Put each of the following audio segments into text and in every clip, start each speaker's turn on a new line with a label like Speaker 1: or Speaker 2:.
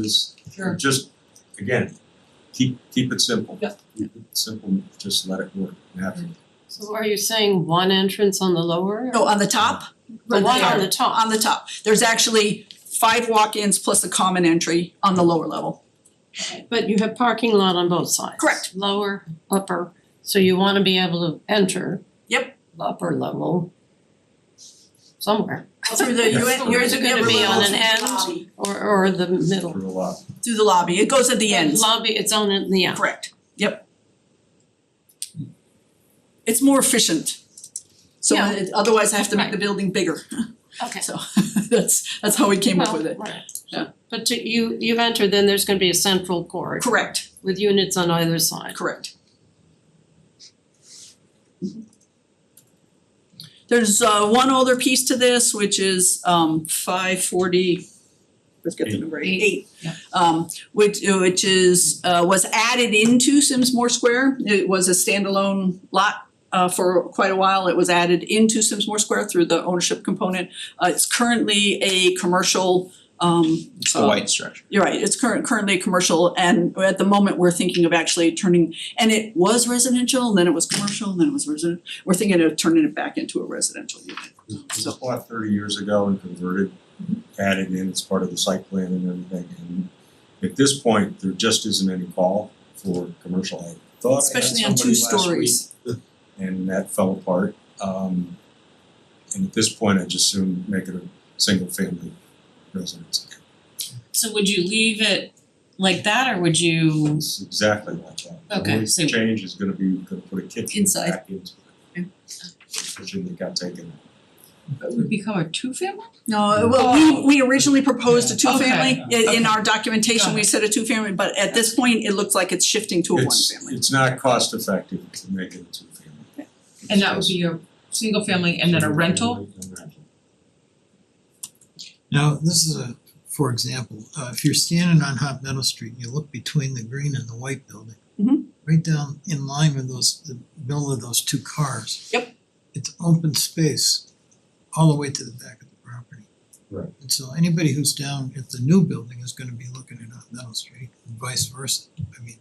Speaker 1: is
Speaker 2: Sure.
Speaker 1: just, again, keep keep it simple.
Speaker 2: Yeah.
Speaker 1: Keep it simple, just let it work, you have to.
Speaker 3: So are you saying one entrance on the lower?
Speaker 4: No, on the top,
Speaker 3: The
Speaker 4: on
Speaker 3: one
Speaker 4: the-
Speaker 3: on the top?
Speaker 4: on the top. There's actually five walk-ins plus a common entry on the lower level.
Speaker 3: But you have parking lot on both sides.
Speaker 4: Correct.
Speaker 3: Lower, upper, so you wanna be able to enter.
Speaker 4: Yep.
Speaker 3: the Upper level. Somewhere,
Speaker 4: Through the,
Speaker 1: Yes.
Speaker 4: you- yours are
Speaker 3: It's gonna be on an end.
Speaker 4: lobby.
Speaker 3: or or the middle.
Speaker 1: Through a lot.
Speaker 4: Through the lobby, it goes at the
Speaker 3: The
Speaker 4: ends.
Speaker 3: Lobby, it's on in the end.
Speaker 4: Correct, yep. It's more efficient. So
Speaker 3: Yeah.
Speaker 4: it- otherwise I have to make the building bigger,
Speaker 3: Okay.
Speaker 4: so that's that's how we came up with it.
Speaker 3: Well, right.
Speaker 4: Yeah.
Speaker 3: But to- you you've entered, then there's gonna be a central court
Speaker 4: Correct,
Speaker 3: with units on either side.
Speaker 4: correct. Mm-hmm. There's uh one other piece to this, which is um five forty, let's get the
Speaker 1: Eight.
Speaker 4: number
Speaker 2: Eight.
Speaker 4: eight. Eight.
Speaker 2: Yeah.
Speaker 4: Um which which is uh was added into Simsmore Square, it was a standalone lot uh for quite a while. It was added into Simsmore Square through the ownership component. Uh it's currently a commercial um
Speaker 5: It's
Speaker 4: uh,
Speaker 5: the white structure.
Speaker 4: You're right, it's current currently commercial and at the moment, we're thinking of actually turning, and it was residential, and then it was commercial, and then it was resident, we're thinking of turning it back into a residential unit.
Speaker 1: It
Speaker 4: So-
Speaker 1: was bought thirty years ago and converted, added in, it's part of the site plan and everything, and at this point, there just isn't any call for commercial. I thought I had
Speaker 4: Especially on
Speaker 1: somebody
Speaker 4: two
Speaker 1: last week,
Speaker 4: stories.
Speaker 1: and that fell apart. Um and at this point, I just soon make it a single family residence.
Speaker 2: So would you leave it like that or would you?
Speaker 1: It's exactly like that.
Speaker 2: Okay,
Speaker 1: The
Speaker 2: so-
Speaker 1: only change is gonna be, gonna put a kitchen
Speaker 4: Inside.
Speaker 1: back into it. Kitchen that got taken out.
Speaker 2: It would become a two family?
Speaker 4: No, well, we we originally proposed a two-family,
Speaker 2: Okay,
Speaker 4: in in
Speaker 2: okay.
Speaker 4: our documentation,
Speaker 2: Got
Speaker 4: we said a two-family, but at this point, it looks like it's shifting to a
Speaker 1: It's
Speaker 4: one-family.
Speaker 1: it's not cost effective to make it a two family.
Speaker 2: And that would be a single family and then a rental?
Speaker 6: Now, this is a, for example, uh if you're standing on Hot Meadow Street and you look between the green and the white building.
Speaker 4: Mhm.
Speaker 6: Right down in line with those, the middle of those two cars.
Speaker 4: Yep.
Speaker 6: It's open space all the way to the back of the property.
Speaker 1: Right.
Speaker 6: And so anybody who's down at the new building is gonna be looking at Hot Meadow Street and vice versa, I mean,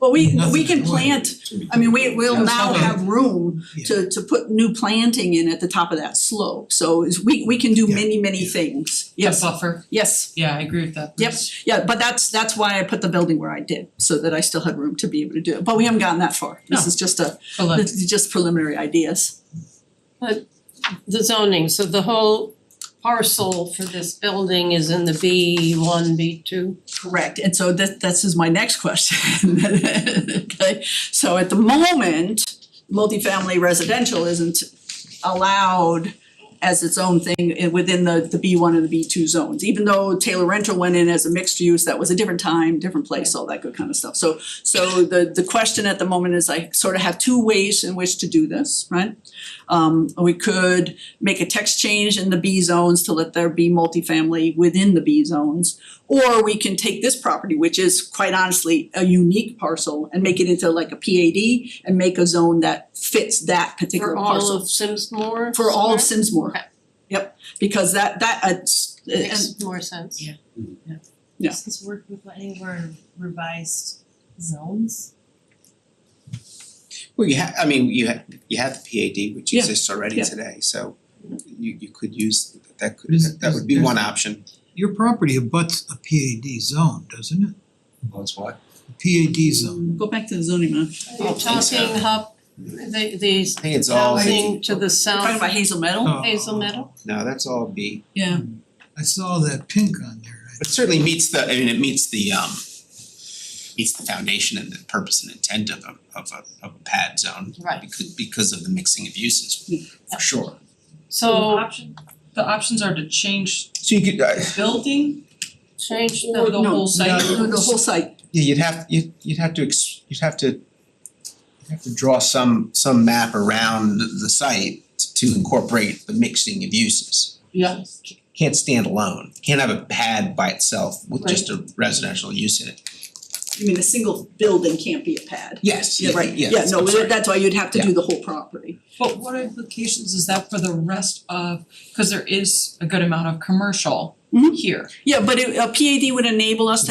Speaker 4: But we we
Speaker 6: Nothing
Speaker 4: can
Speaker 6: to do with it.
Speaker 4: plant, I mean, we will
Speaker 2: Yeah,
Speaker 4: now
Speaker 2: something.
Speaker 4: have room
Speaker 6: Yeah.
Speaker 4: to to put new planting in at the top of that slope, so is we we can do
Speaker 6: Yeah,
Speaker 4: many, many
Speaker 6: yeah.
Speaker 4: things,
Speaker 2: A
Speaker 4: yes,
Speaker 2: buffer?
Speaker 4: yes.
Speaker 2: Yeah, I agree with that.
Speaker 4: Yep. Yeah, but that's that's why I put the building where I did, so that I still had room to be able to do it, but we haven't gotten that far. This is just a,
Speaker 2: But look,
Speaker 4: this is just preliminary ideas.
Speaker 3: The zoning, so the whole parcel for this building is in the B one, B two?
Speaker 4: Correct, and so that this is my next question. Okay, so at the moment, multifamily residential isn't allowed as its own thing i- within the the B one and the B two zones, even though Taylor Rental went in as a mixed use, that was a different time, different place, all that good kind of stuff. So so the the question at the moment is I sort of have two ways in which to do this, right? Um we could make a text change in the B zones to let there be multifamily within the B zones. Or we can take this property, which is quite honestly a unique parcel and make it into like a PAD and make a zone that fits that particular
Speaker 3: For
Speaker 4: parcel.
Speaker 3: all of Simsmore?
Speaker 4: For all of
Speaker 3: Square?
Speaker 4: Simsmore.
Speaker 3: Okay.
Speaker 4: Yep, because that that uh, s- uh, and
Speaker 3: Makes more sense.
Speaker 2: Yeah.
Speaker 4: Yeah.
Speaker 7: Does this work with any of our revised zones?
Speaker 5: Well, you ha- I mean, you ha- you have the PAD, which
Speaker 4: Yeah,
Speaker 5: exists already
Speaker 4: yeah.
Speaker 5: today, so you you could use, that could,
Speaker 6: There's-
Speaker 5: that would be
Speaker 6: there's-
Speaker 5: one option.
Speaker 6: your property abuts a PAD zone, doesn't it?
Speaker 1: That's why.
Speaker 6: A PAD zone.
Speaker 4: go back to the zoning map.
Speaker 3: You're talking hub, the these
Speaker 5: I think it's all,
Speaker 3: housing to the
Speaker 4: We're Talking
Speaker 3: south,
Speaker 4: about Hazel Meadow?
Speaker 6: Oh.
Speaker 3: Hazel Meadow?
Speaker 5: no, that's all B.
Speaker 4: Yeah.
Speaker 6: I saw that pink on there, I
Speaker 5: It certainly meets the, I mean, it meets the um meets the foundation and the purpose and intent of a of a of a pad zone.
Speaker 3: Right.
Speaker 5: Because because of the mixing of uses, for sure.
Speaker 2: the
Speaker 3: So
Speaker 2: option, the options are to change
Speaker 5: So you could, uh,
Speaker 2: the building
Speaker 3: change
Speaker 2: or
Speaker 3: the,
Speaker 2: the whole site.
Speaker 4: No, the whole site,
Speaker 5: Yeah, you'd have, you'd you'd have to, ex- you'd have to, you'd have to draw some some map around the the site to incorporate the mixing of uses.
Speaker 2: Yeah.
Speaker 5: Can't stand alone, can't have a pad by itself with just a residential use in it.
Speaker 4: you mean a single building can't be a pad?
Speaker 5: Yes, yeah,
Speaker 4: Yeah, right, yeah,
Speaker 5: yes,
Speaker 4: no,
Speaker 5: I'm sorry.
Speaker 4: that's why you'd have to
Speaker 5: Yeah.
Speaker 4: do the whole property.
Speaker 2: But what implications is that for the rest of, cause there is a good amount of commercial
Speaker 4: Mhm.
Speaker 2: here.
Speaker 4: Yeah, but it, a PAD would enable us to